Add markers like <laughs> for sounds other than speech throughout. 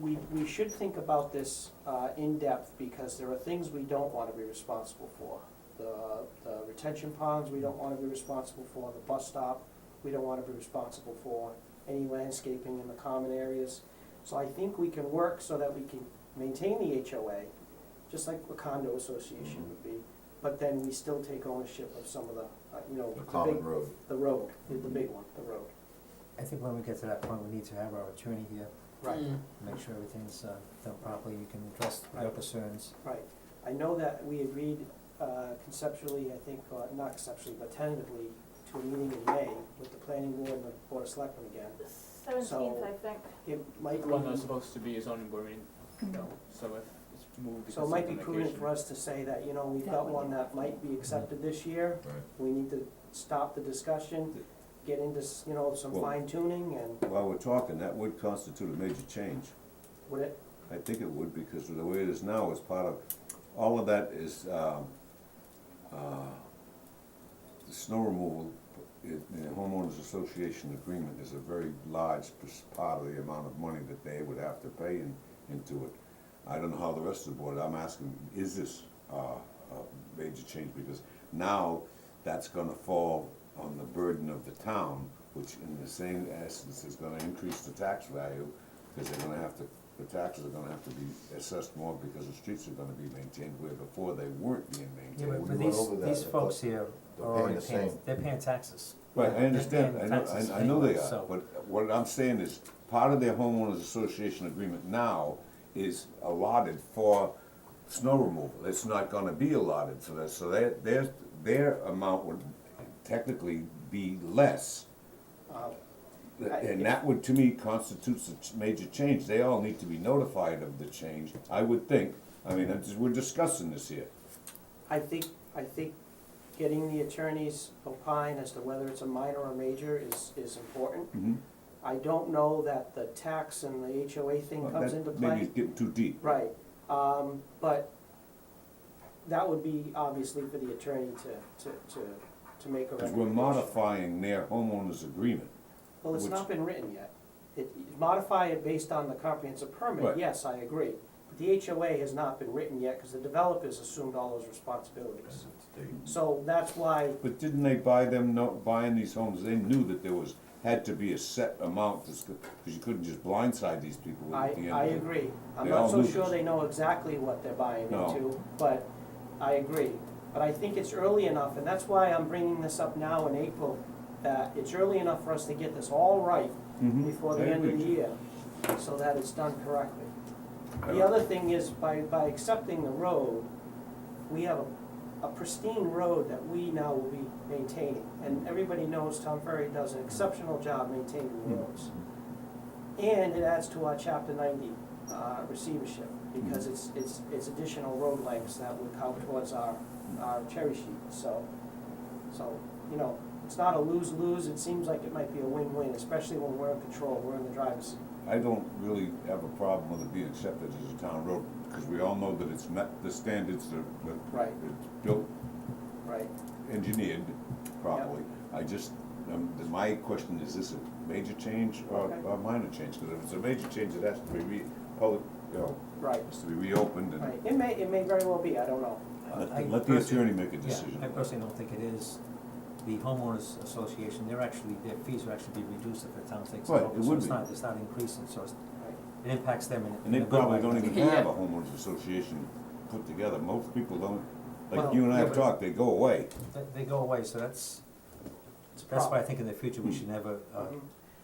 we, we should think about this uh, in depth, because there are things we don't want to be responsible for. The, the retention ponds, we don't want to be responsible for, the bus stop, we don't want to be responsible for, any landscaping in the common areas. So I think we can work so that we can maintain the HOA, just like a condo association would be, but then we still take ownership of some of the, uh, you know, a the common big, road. the road, the the big one, the road. I think when we get to that point, we need to have our attorney here, Right. make sure everything's uh, done properly, you can address your Right. concerns. Right, I know that we agreed uh, conceptually, I think, uh, not conceptually, but tentatively, to a meeting in May with the planning board and the board of selectmen again. Seventeenth, I think. It might The one that was be, supposed to be a zoning board meeting, no, so if it's moved because so it of the might be prudent vacation. for us to say that, you know, we've That got one, one yeah. that might be accepted this year. Right. We need to stop the discussion, get into, s- you know, some Well- fine tuning and While we're talking, that would constitute a major change. would it, I think it would, because of the way it is now is part of, all of that is, um, uh, the snow removal, in, in the homeowners association agreement is a very large pers- part of the amount of money that they would have to pay in, into it. I don't know how the rest of the board, I'm asking, is this, uh, a major change, because now that's gonna fall on the burden of the town, which in the same essence is gonna increase the tax value, because they're gonna have to, the taxes are gonna have to be assessed more because the streets are gonna be maintained where before they weren't being Yeah, maintained. but we but went over these, that, these but folks here they're are paying already the paying, same. they're paying taxes. Right, I They're understand, I paying know, taxes I, I know they anyway, are, so- but what I'm saying is, part of their homeowners association agreement now is allotted for snow removal, it's not gonna be allotted for this, so their, their, their amount would technically be less. uh, I- And that would, to me, constitutes a ch- major change, they all need to be notified of the change, I would think, I mean, I'm just- we're discussing this here. I think, I think getting the attorneys opine as to whether it's a minor or major is, is important. Mhm. I don't know that the tax and the HOA thing Well, comes that into Maybe play. it's getting too deep. Right, um, but that would be obviously for the attorney to, to, to, to make a Because we're recommendation. modifying their homeowners agreement. Well, it's which- not been written yet. It, modify it based on the comprehensive permit, Right. yes, I agree. But the HOA has not been written yet, cause the developers assumed all those responsibilities. So that's why But didn't they buy them, no, buying these homes, they knew that there was, had to be a set amount, because you couldn't just blindside these people I, at the end. I of it. agree. I'm They not all so lose. sure they know exactly what they're buying No. into, but I agree. But I think it's early enough, and that's why I'm bringing this up now in April, that it's early enough for us to get this all right Mhm. before the I end of the agree. year, so that it's done correctly. I The don't- <laughs> other thing is, by, by accepting the road, we have a- a pristine road that we now will be maintaining. And everybody knows Tom Ferry does an exceptional job maintaining the Hmm. roads. And it adds to our chapter ninety, uh, receivership, because it's, it's, it's additional road lengths that would count towards our, our cherry sheet, so. So, you know, it's not a lose-lose, it seems like it might be a win-win, especially when we're in control, we're in the driver's seat. I don't really have a problem with it being accepted as a town road, because we all know that it's met the standards that, that Right. it's built, Right. engineered properly. I just, um, my question, is this a major change or Okay. or a minor change? Because if it's a major change, it has to be re, public, you know, Right, has to be reopened and right, it may, it may very well be, I don't know. Let, I the- let the personally- attorney make a Yeah, decision. I personally don't think it is. The homeowners association, they're actually, their fees will actually be reduced if the town takes it Right, it over, so would it's be. not, it's not increasing, so it's, Right. it impacts them in, And in they a good probably way. don't even Yeah. have a homeowners association put together, most people don't, like Well, you and I yeah, have but- talked, they go away. They, they go away, so that's, It's a that's why I problem. think in the future, Hmm. we should never, uh, Mhm.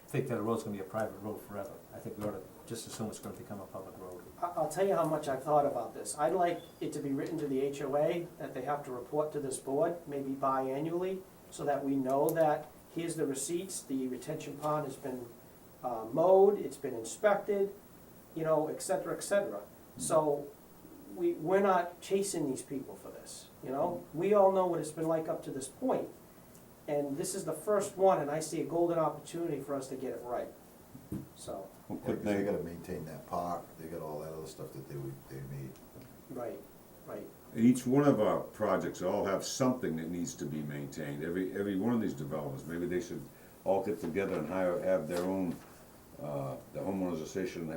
think that a road's gonna be a private road forever. I think we ought to just assume it's gonna become a public road. I- I'll tell you how much I've thought about this. I'd like it to be written to the HOA that they have to report to this board, maybe biannually, so that we know that here's the receipts, the retention pond has been uh, mowed, it's been inspected, you know, et cetera, et cetera. So we, we're not chasing these people for this, you know? We all know what it's been like up to this point, And this is the first one, and I see a golden opportunity for us to get it right, so, Yeah, Well, 'cause Couldn't they they, gotta maintain that park, they got all that other stuff that they would, they need. right, right. each one of our projects all have something that needs to be maintained, every, every one of these developments, maybe they should all get together and hire, have their own, uh, the homeowners association